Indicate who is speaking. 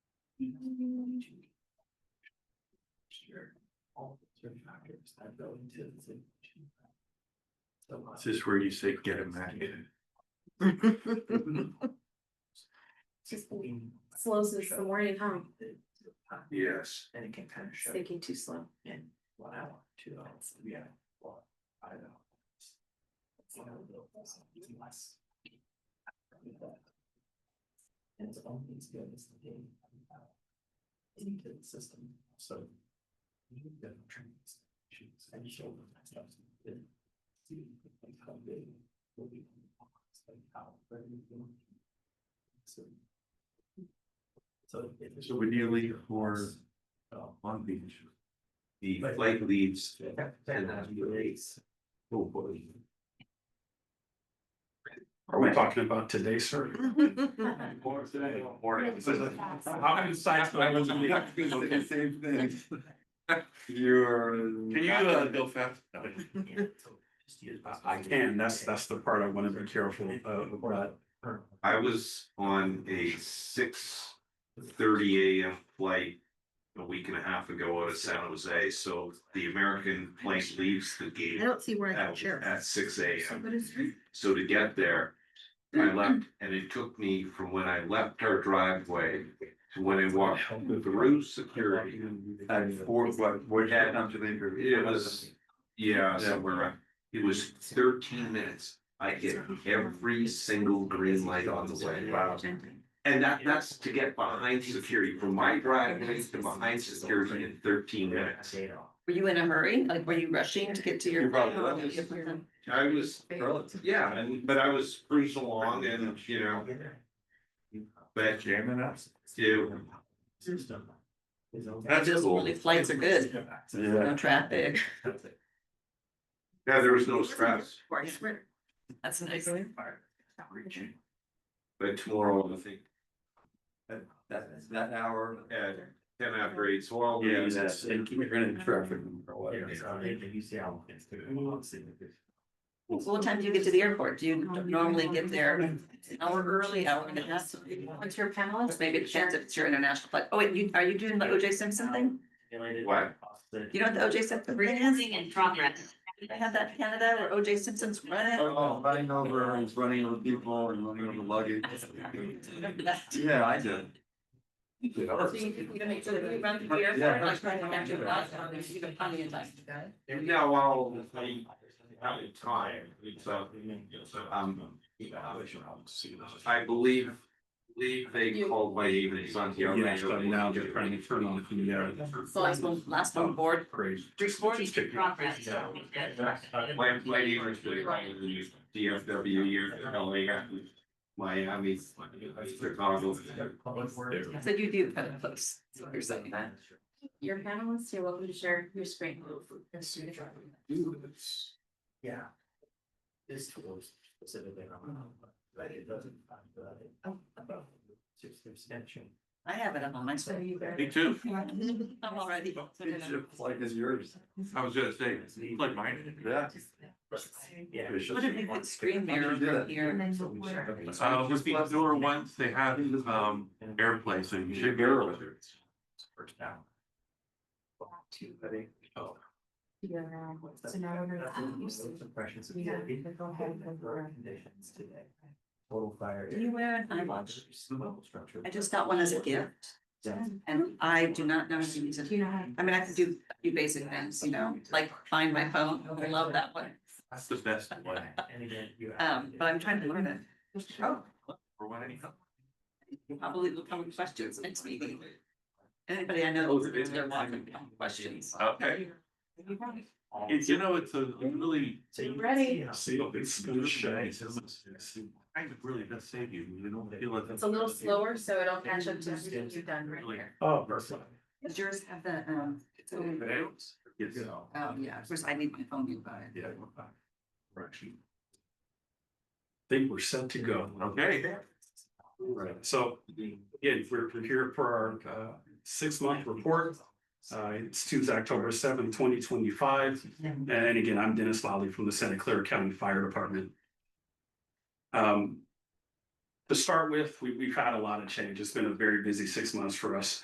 Speaker 1: Sure. All the three factors that go into the same. So, uh,
Speaker 2: Is this where you say get him back?
Speaker 3: Just
Speaker 1: we-
Speaker 3: slows us the morning home.
Speaker 2: Yes.
Speaker 1: And it can kind of show
Speaker 3: Thinking too slow.
Speaker 1: in one hour, two hours, three hours, well, I don't know. It's- it's not a real process, it's less. And it's only as good as the day. Into the system, so. You need to train these issues and show them that stuff. and See like how big will be. the box, Like how. very big. So. So. if it's-
Speaker 2: So we're dealing for-
Speaker 1: Oh.
Speaker 2: Long Beach. The flight leaves.
Speaker 1: Then that'd be race.
Speaker 2: Oh, boy.
Speaker 4: Are we talking about today, sir?
Speaker 3: It's
Speaker 2: Or today.
Speaker 4: How many sites do I have to be-
Speaker 2: Same thing. You're.
Speaker 4: Can you uh, go fast? I
Speaker 1: I
Speaker 4: can, that's, that's the part I want to be careful of, but
Speaker 5: I was on a six thirty AM flight a week and a half ago out of San Jose, so the American plane leaves the gate
Speaker 6: don't see where I can
Speaker 5: at,
Speaker 6: share.
Speaker 5: at six AM.
Speaker 6: But it's
Speaker 5: So to get there, I left, and it took me from when I left our driveway to when I walked through security.
Speaker 2: At four, what, what had to the interview?
Speaker 5: It was, yeah, somewhere around, it was thirteen minutes. I hit every single green light on the way.
Speaker 2: Wow.
Speaker 5: And that, that's to get behind security, from my driveway to behind security in thirteen minutes.
Speaker 6: Were you in a hurry? Like, were you rushing to get to your?
Speaker 5: You're probably- I was, yeah, and, but I was cruising along and, you know, but
Speaker 2: Jamming us.
Speaker 5: Ew.
Speaker 1: That's
Speaker 6: Just
Speaker 5: cool.
Speaker 6: really flights are good. No traffic.
Speaker 5: yeah, there was no stress.
Speaker 6: That's nice.
Speaker 5: But tomorrow, I think,
Speaker 2: That, that hour.
Speaker 5: at ten after eight, so I'll
Speaker 4: yeah,
Speaker 5: be.
Speaker 4: that's, and keep it in traffic. or whatever.
Speaker 1: Normally
Speaker 6: So what time do you get to the airport? Do you normally get there an hour early, hour and a half? What's your palace? Maybe it depends if it's your international flight. Oh, wait, you, are you doing the OJ Simpson thing?
Speaker 5: What?
Speaker 6: You know what the OJ Simpson? Dancing in progress. They had that in Canada where OJ Simpson's running.
Speaker 2: Oh, running over, he's running over people and running over luggage.
Speaker 6: Remember that?
Speaker 2: Yeah, I did.
Speaker 6: So you you gotta make sure that you run through the airport, like trying to catch your bus, or there's even plenty of time.
Speaker 5: Yeah, well, I haven't time, so
Speaker 4: uh,
Speaker 5: um, I believe, believe they called my evening son the other
Speaker 4: Yeah,
Speaker 5: night.
Speaker 4: so now they're trying to turn on the, uh,
Speaker 6: So last one, last one board.
Speaker 4: crazy.
Speaker 6: Recording progress.
Speaker 5: My, my neighbors really like the DFW years in LA, Miami, Chicago.
Speaker 4: Uh,
Speaker 6: So you do kind of close. So you're saying that.
Speaker 3: Your panelists, you're welcome to share your screen.
Speaker 1: Yeah. This tools specifically. But it doesn't. About. Substantial.
Speaker 6: I have it on my
Speaker 3: So
Speaker 6: phone.
Speaker 3: you better.
Speaker 4: Me too.
Speaker 6: I'm already.
Speaker 2: Like is yours.
Speaker 4: I was gonna say, like mine.
Speaker 2: Yeah.
Speaker 1: Yeah.
Speaker 6: What if we put screen mirror over here?
Speaker 4: Uh, with the newer ones, they have, um, airplane, so you should go with it.
Speaker 1: First down. Two, I think. Oh.
Speaker 3: Yeah.
Speaker 1: What's
Speaker 3: So
Speaker 1: that?
Speaker 3: now we're gonna-
Speaker 1: That's what we used to impressions of
Speaker 3: We got-
Speaker 1: the-
Speaker 3: we go ahead and go
Speaker 1: Our
Speaker 3: around.
Speaker 1: Conditions today. Total fire.
Speaker 6: Can you wear an eye watch? I just got one as a gift and I do not know how to use
Speaker 3: Do
Speaker 6: it.
Speaker 3: you know how? to-
Speaker 6: I mean, I can do a few basic things, you know, like find my phone. I love that one.
Speaker 4: That's the best one.
Speaker 6: Um, but I'm trying to learn it.
Speaker 1: Oh.
Speaker 4: For one, anyhow.
Speaker 6: Probably will come with questions next meeting. Anybody I know that's they're walking questions.
Speaker 4: Okay, it's, you know, it's a really,
Speaker 3: Ready?
Speaker 4: see, it's gonna shine. I really does save you, you don't feel it.
Speaker 3: It's a little slower, so it'll catch up to everything you've done right here.
Speaker 1: Oh, perfect.
Speaker 6: Does yours have the, um, it's only-
Speaker 4: Yes.
Speaker 6: oh, yeah, of course, I need my phone nearby.
Speaker 4: Yeah.
Speaker 7: think we're set to go.
Speaker 4: Okay.
Speaker 7: Right, so again, we're we're here for our uh six month report. Uh, it's Tuesday, October seventh, twenty twenty five. And again, I'm Dennis Lally from the Santa Clara County Fire Department. Um. To start with, we we've had a lot of change. It's been a very busy six months for us.